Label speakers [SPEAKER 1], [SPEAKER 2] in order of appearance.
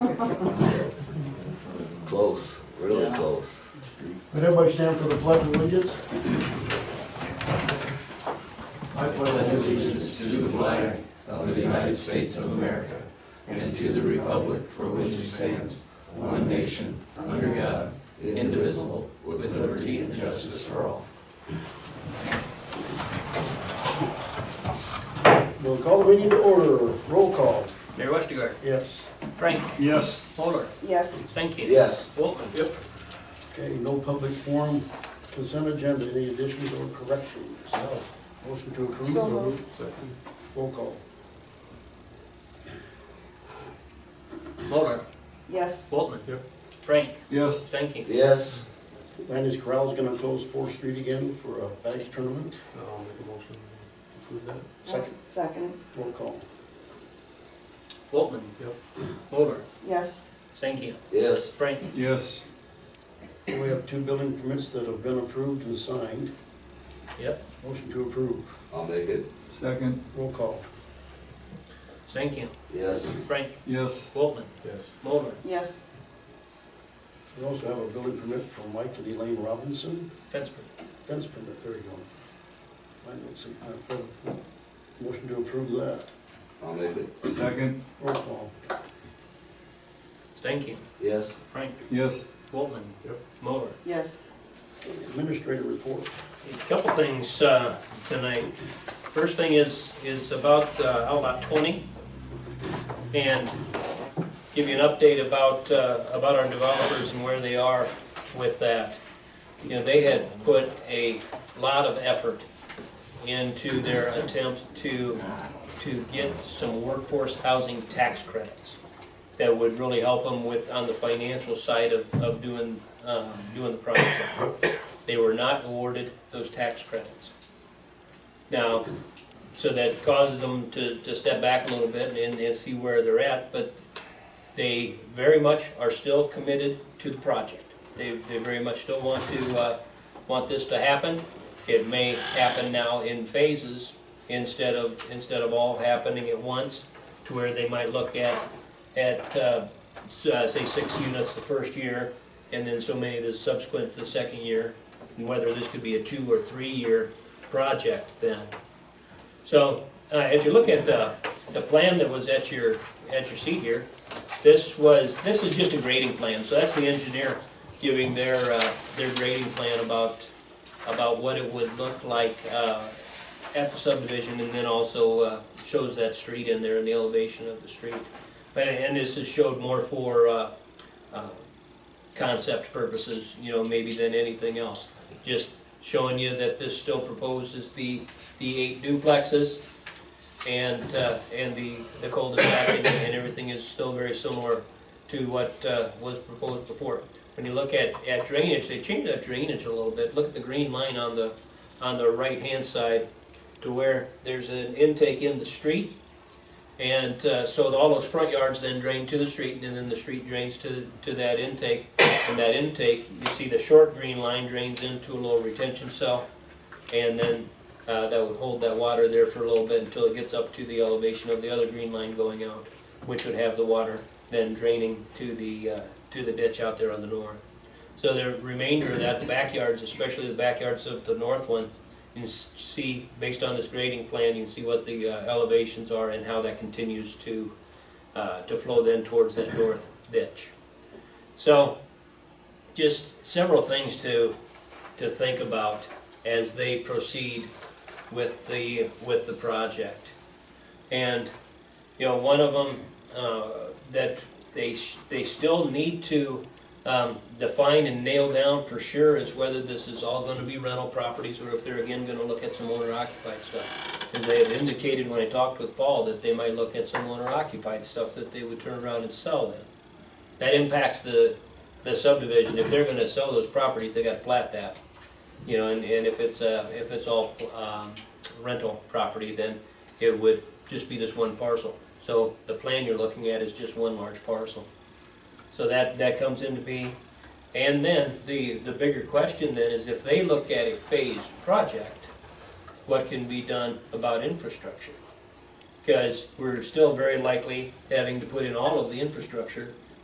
[SPEAKER 1] Close, really
[SPEAKER 2] Yeah.
[SPEAKER 1] close.
[SPEAKER 3] Would everybody stand for the pledge of allegiance? I pledge allegiance.
[SPEAKER 4] allegiance to the flag of the United States of America and to the republic for which it stands, one nation, under God, indivisible, with liberty and justice for all.
[SPEAKER 3] We'll call the meeting to order. Roll call.
[SPEAKER 2] Mayor Westergaard,
[SPEAKER 3] Yes.
[SPEAKER 2] Frank,
[SPEAKER 5] Yes.
[SPEAKER 2] Moller,
[SPEAKER 6] Yes,
[SPEAKER 2] Stankin.
[SPEAKER 1] Yes.
[SPEAKER 2] Bolton. Yep.
[SPEAKER 3] Okay, no public forum, consent agenda, any additions or corrections? No. Motion to approve.
[SPEAKER 6] So moved.
[SPEAKER 3] Roll call.
[SPEAKER 2] Moller,
[SPEAKER 6] yes,
[SPEAKER 2] Bolton. Yep. Frank,
[SPEAKER 5] Yes.
[SPEAKER 2] Stankin.
[SPEAKER 1] Yes,
[SPEAKER 3] Landis Corral's gonna close Fourth Street again for a bags tournament.
[SPEAKER 5] I'll make a motion to approve that.
[SPEAKER 6] I'll
[SPEAKER 3] Second,
[SPEAKER 6] second,
[SPEAKER 3] roll call.
[SPEAKER 2] Bolton.
[SPEAKER 5] Yep.
[SPEAKER 2] Moller,
[SPEAKER 6] yes,
[SPEAKER 2] Stankin.
[SPEAKER 1] yes,
[SPEAKER 2] Frank,
[SPEAKER 5] Yes.
[SPEAKER 3] We have two building permits that have been approved and signed.
[SPEAKER 2] yep,
[SPEAKER 3] Motion to approve.
[SPEAKER 1] I'll make it.
[SPEAKER 5] Second.
[SPEAKER 3] Roll call.
[SPEAKER 2] Stankin.
[SPEAKER 1] Yes,
[SPEAKER 2] Frank,
[SPEAKER 5] Yes.
[SPEAKER 2] Bolton,
[SPEAKER 5] Yes.
[SPEAKER 2] Moller,
[SPEAKER 6] yes,
[SPEAKER 3] We also have a building permit from Mike and Elaine Robinson.
[SPEAKER 2] Fensford.
[SPEAKER 3] Fence permit, there you go. I don't see, I have a motion to approve that.
[SPEAKER 1] I'll make it.
[SPEAKER 5] Second.
[SPEAKER 3] Roll call.
[SPEAKER 2] Stankin.
[SPEAKER 1] Yes,
[SPEAKER 2] Frank,
[SPEAKER 5] Yes.
[SPEAKER 2] Bolton.
[SPEAKER 5] Yep.
[SPEAKER 2] Moller.
[SPEAKER 6] yes,
[SPEAKER 3] Administrator report.
[SPEAKER 2] A Couple things uh, tonight. First thing is, is about uh, Outlot 20, and give you an update about, uh, about our developers and where they are with that. You know, they had put a lot of effort into their attempt to, to get some workforce housing tax credits that would really help them with, on the financial side of, of doing, um, doing the project they were not awarded those tax credits. Now, so that causes them to, to step back a little bit and, and see where they're at, but they very much are still committed to the project. They, they very much still want to, uh, want this to happen. It may happen now in phases instead of, instead of all happening at once, to where they might look at, at, uh, s- uh, say, six units the first year, and then so many the subsequent to the second year, and whether this could be a two or three-year project then. So, uh, as you look at the, the plan that was at your, at your seat here, this was, this is just a grading plan, so that's the engineer giving their, uh, their grading plan about, about what it would look like, uh, at the subdivision, and then also, uh, shows that street in there and the elevation of the street. And, and this is showed more for, uh, uh, concept purposes, you know, maybe than anything else. Just showing you that this still proposes the, the eight duplexes and, uh, and the, the cul-de-sac and- and everything is still very similar to what, uh, was proposed before. When you look at, at drainage, they changed that drainage a little bit. Look at the green line on the, on the right-hand side to where there's an intake in the street. And, uh, so all those front yards then drain to the street and then the street drains to, to that intake. And that intake, you see the short green line drains into a little retention cell. And then uh, that would hold that water there for a little bit until it gets up to the elevation of the other green line going out, which would have the water then draining to the, uh, to the ditch out there on the north. So the remainder of that, the backyards, especially the backyards of the north one, you can s- see, based on this grading plan, you can see what the uh, elevations are and how that continues to, uh, to flow then towards that north ditch. So, just several things to, to think about as they proceed with the, with the project. And, you know, one of them, uh, that they, s- they still need to, um, define and nail down for sure is whether this is all gonna be rental properties or if they're again gonna look at some owner occupied stuff. And they had indicated when I talked with Paul that they might look at some owner occupied stuff that they would turn around and sell then. That impacts the, the subdivision, if they're gonna sell those properties, they gotta plat that. You know, and, and if it's, uh, if it's all, um, rental property, then it would just be this one parcel. So the plan you're looking at is just one large parcel. So that, that comes into being. And then, the, the bigger question then is if they look at a phased project, what can be done about infrastructure? Because we're still very likely having to put in all of the infrastructure